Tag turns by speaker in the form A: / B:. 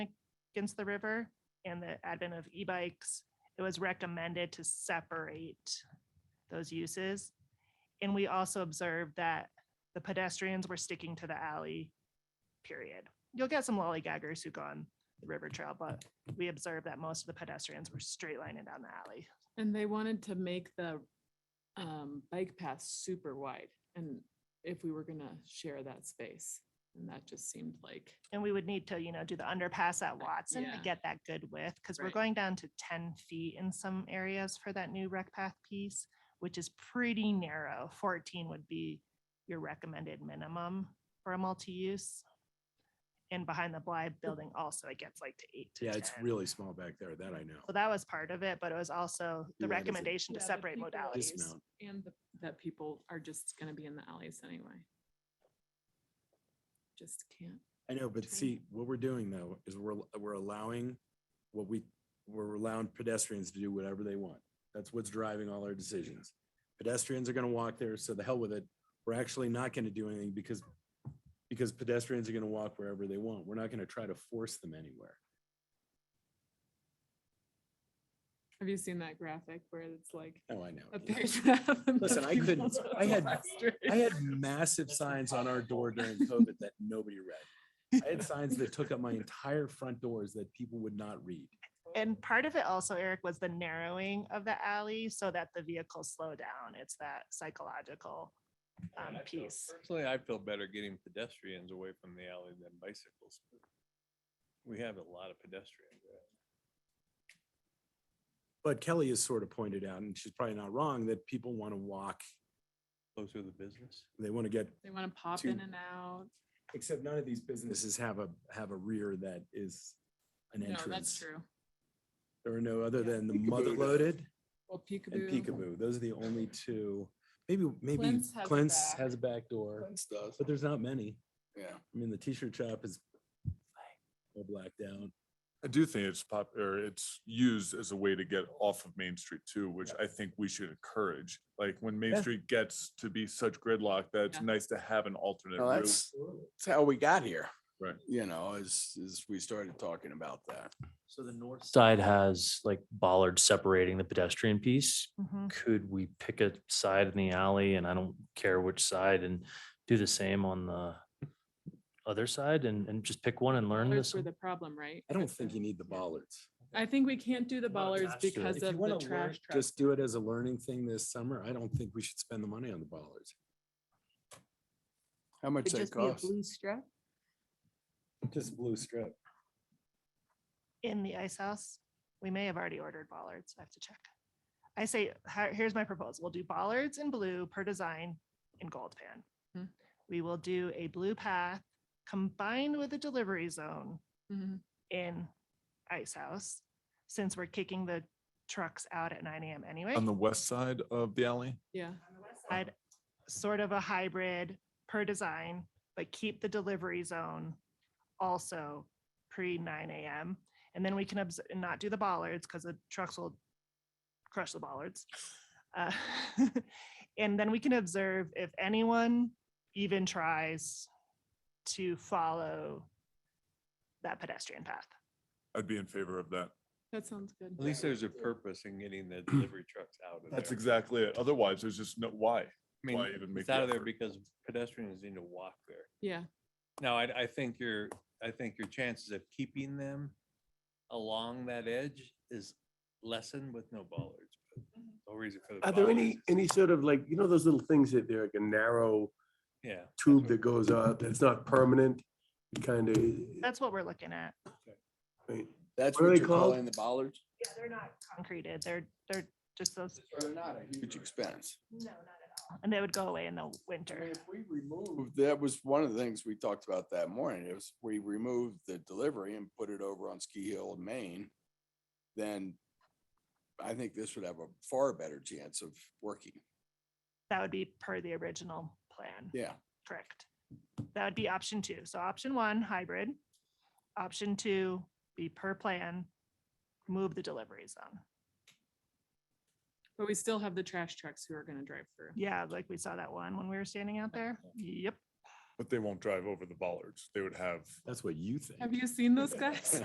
A: against the river and the advent of e-bikes, it was recommended to separate those uses. And we also observed that the pedestrians were sticking to the alley, period. You'll get some lollygaggers who go on the river trail, but we observed that most of the pedestrians were straight lining down the alley.
B: And they wanted to make the um, bike path super wide and if we were gonna share that space. And that just seemed like,
A: And we would need to, you know, do the underpass at Watson to
B: yeah.
A: get that good width, because we're
B: Right.
A: going down to ten feet in some areas for that new rec path piece, which is pretty narrow. Fourteen would be your recommended minimum for a multi-use. And behind the Blythe building also, it gets like to eight to
C: Yeah, it's
A: 10.
C: really small back there. That I know.
A: So that was part of it, but it was also the
C: Yeah, that's a-
A: recommendation to
B: Yeah, the
A: separate
B: people-
A: modalities.
C: Dismount.
B: and the- that people are just gonna be in the alleys anyway. Just can't.
C: I know, but
B: Train.
C: see, what we're doing though is we're, we're allowing what we, we're allowing pedestrians to do whatever they want. That's what's driving all our decisions. Pedestrians are gonna walk there, so the hell with it. We're actually not gonna do anything because, because pedestrians are gonna walk wherever they want. We're not gonna try to force them anywhere.
B: Have you seen that graphic where it's like
C: Oh, I know.
B: a page and a half? and the
C: Listen, I couldn't-
B: people's
C: I had-
B: plastered?
C: I had massive signs on our door during COVID that nobody read. I had signs that took up my entire front doors that people would not read.
A: And part of it also, Eric, was the narrowing of the alley so that the vehicles slow down. It's that psychological um, piece.
D: Personally, I feel better getting pedestrians away from the alley than bicycles. We have a lot of pedestrians.
C: But Kelly has sort of pointed out, and she's probably not wrong, that people want to walk.
D: Closer to the business.
C: They want to get,
B: They wanna pop
C: Two.
B: in and out.
C: except none of these businesses have a, have a rear that is an
B: No,
C: entrance.
B: that's true.
C: There are no other
B: Yeah.
C: than the mother loaded
B: Well,
C: and
B: peekaboo.
C: peekaboo. Those are the only two. Maybe, maybe
B: Clint's has a
C: Clint's
B: back.
C: has a back door,
E: does.
C: but there's not many.
E: Yeah.
C: I mean, the t-shirt shop is all blacked out.
F: I do think it's pop, or it's used as a way to get off of Main Street too, which I think we should encourage. Like when Main
C: Yeah.
F: Street gets to be such gridlock, that it's
B: Yeah.
F: nice to have an alternate
C: Oh,
E: No,
F: route.
E: that's, that's how we got here.
F: Right.
E: You know, as, as we started talking about that.
G: So the north side has like bollard separating the pedestrian piece.
A: Mhm.
F: Mm.
G: Could we pick a side in the alley and I don't care which side and do the same on the other side and, and just pick one and learn
B: Bollards
G: this?
B: were the problem, right?
C: I don't
B: That's
C: think
B: the-
C: you need the
B: yeah.
C: bollards.
B: I think we can't do the
G: Not
B: bollards
G: attached to it.
B: because
C: If you
B: of the
C: want to learn,
B: trash truck.
C: just do it as a learning thing this summer. I don't think we should spend the money on the bollards.
E: How much
H: It'd
E: that
H: just be a
E: cost?
H: blue strip.
C: Just blue strip.
A: In the ice house, we may have already ordered bollards. I have to check. I say, "Hi- here's my proposal. We'll do bollards in blue per design in gold
B: Hmm.
A: pan. We will do a blue path combined with a delivery zone
B: Mhm.
A: in ice house, since we're kicking the trucks out at nine AM anyway.
F: On the west side of the alley?
B: Yeah,
A: I'd sort of a hybrid per design, but keep the delivery zone also pre nine AM. And then we can obs- and not do the bollards because the trucks will crush the bollards. Uh, And then we can observe if anyone even tries to follow that pedestrian path.
F: I'd be in favor of that.
B: that sounds good.
D: At least there's a purpose in getting the delivery trucks out of there.
F: That's exactly it. Otherwise, there's just no, why?
D: I mean,
F: why even make
D: it's
F: the
D: out of there
F: effort.
D: because pedestrians need to walk there.
B: Yeah,
D: Now, I, I think your, I think your chances of keeping them along that edge is lessened with no bollards. but
F: Mm-hmm.
D: No reason for the.
I: Are there any,
D: bollards.
I: any sort of like, you know, those little things that they're like a narrow
D: Yeah. that's
I: tube
D: what-
I: that goes up, that's not permanent? It kind of,
A: That's what we're looking at.
E: That's
I: What are
E: what
I: they
E: you're
I: called?
E: calling the bollards?
A: Yeah, they're not concreted. They're, they're just those,
E: They're not a huge expense.
A: no, not at all. And they would go away in the
E: I
A: winter.
E: mean, if we removed, that was one of the things we talked about that morning, is we removed the delivery and put it over on Ski Hill in Maine, then I think this would have a far better chance of working.
A: That would be per the original plan,
E: Yeah.
A: correct? That would be option two. So option one, hybrid. Option two, be per plan, move the delivery zone.
B: but we still have the trash trucks who are gonna drive through.
A: Yeah, like we saw that one when we were standing out there. Yep.
F: But they won't drive over the bollards. They would have
C: That's what you think.
B: Have you seen those guys?